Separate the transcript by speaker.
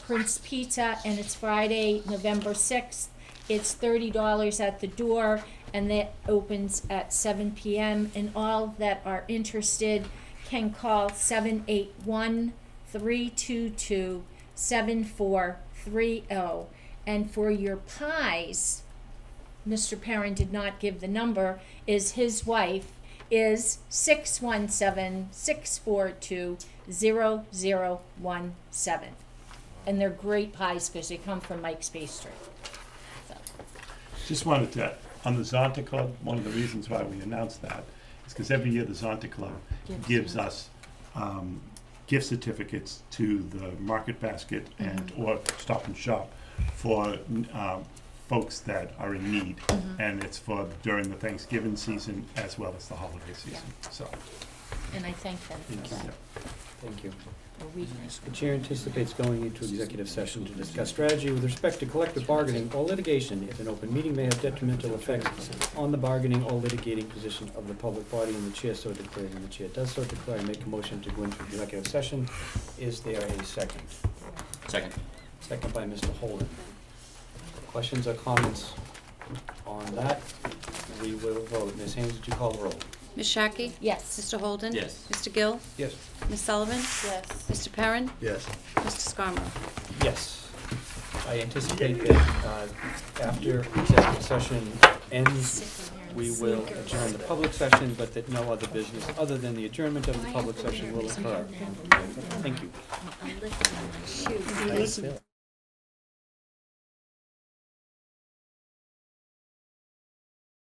Speaker 1: Prince Pizza, and it's Friday, November sixth. It's thirty dollars at the door, and that opens at seven PM. And all that are interested can call seven eight one three two two seven four three oh. And for your pies, Mr. Perrin did not give the number, is his wife is 617-642-0017. And they're great pies because they come from Mike's Bakery.
Speaker 2: Just wanted to, on the Zonta Club, one of the reasons why we announced that is because every year the Zonta Club
Speaker 1: Gives
Speaker 2: gives us um, gift certificates to the Market Basket and, or Stop and Shop for um, folks that are in need. And it's for during the Thanksgiving season as well as the holiday season, so.
Speaker 1: And I thank them for
Speaker 2: yeah.
Speaker 1: that.
Speaker 3: Thank you.
Speaker 1: Or we thank
Speaker 3: The chair anticipates going into executive session to discuss strategy with respect to collective bargaining or litigation if an open meeting may have detrimental effects on the bargaining or litigating position of the public body and the chair so declares, and the chair does so declare, and make a motion to go into executive session. Is there a second?
Speaker 4: Second.
Speaker 3: Second by Mr. Holden. Questions or comments on that? We will vote. Ms. Haynes, would you call the roll?
Speaker 5: Ms. Shaki?
Speaker 1: Yes.
Speaker 5: Mr. Holden?
Speaker 4: Yes.
Speaker 5: Mr. Gill?
Speaker 3: Yes.
Speaker 5: Ms. Sullivan?
Speaker 1: Yes.
Speaker 5: Mr. Perrin?
Speaker 6: Yes.
Speaker 5: Mr. Scarmo?
Speaker 3: Yes. I anticipate that uh, after executive session ends, we will adjourn the public session, but that no other business other than the adjournment of the public session will occur. Thank you.
Speaker 1: Yes.